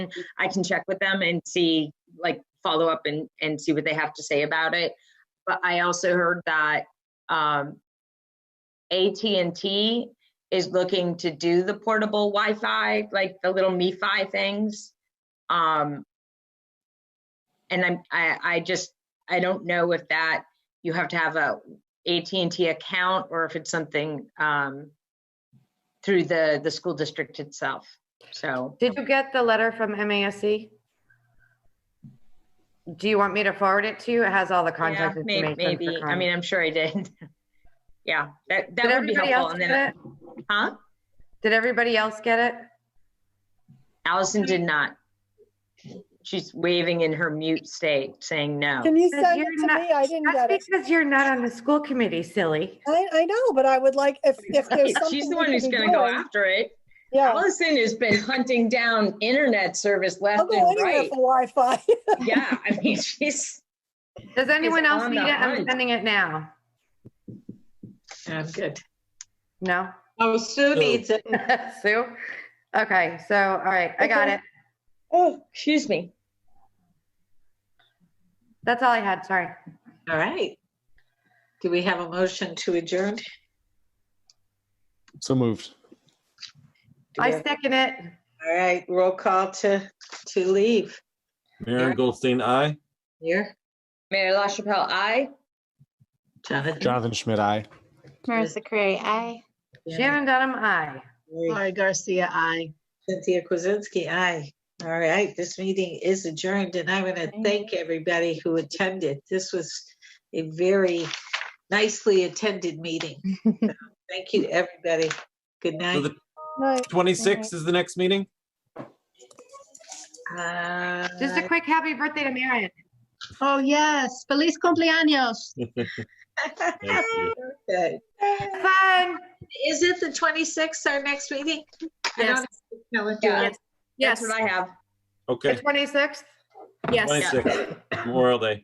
I can check with them and see, like, follow up and, and see what they have to say about it. But I also heard that um, AT&T is looking to do the portable Wi-Fi, like the little MiFi things. Um, and I'm, I, I just, I don't know if that, you have to have a AT&T account or if it's something um, through the, the school district itself. So Did you get the letter from MASC? Do you want me to forward it to you? It has all the yeah, contact may- information. maybe, for I Con- mean, I'm sure I did. Yeah, that, that Did would be everybody helpful. else And then, get it? huh? Did everybody else get it? Allison did not. She's waving in her mute state, saying no. Can you Because send you're it to not- me? I didn't get it. That's because you're not on the school committee, silly. I, I know, but I would like, if, if there's something. She's we the one can who's be gonna go doing- after it. Yeah, Allison has been hunting down internet service I'll left go and anywhere right. for Wi-Fi. Yeah, I mean, she's, Does anyone else on need it? the I'm hunt. sending it now. I'm good. No? Oh, Sue needs it. Sue? Okay, so, all right, I got Okay. it. oh, excuse me. That's all I had, sorry. All right. Do we have a motion to adjourn? Do So moved. we I have- second it. All right, roll call to, to leave. Maren Goldstein, aye. Here, Mayor LaChapelle, aye. Jonathan. Jonathan Schmidt, I. Marissa Curry, aye. Shannon Dunham, aye. Lori Garcia, aye. Cynthia Kuzinski, aye. All right, this meeting is adjourned and I want to thank everybody who attended. This was a very nicely attended meeting. So, Thank you, everybody. Good So night. the Right. 26th is the next meeting? Just a Uh, quick happy birthday to Marion. Oh, yes. Feliz cumpleaños. Thank you. okay. Fun. Is it the 26th, our next meeting? I Yes, don't know what Yeah. to- That's yes, what I have. The Okay, 26th? yes. 26th, Memorial Day.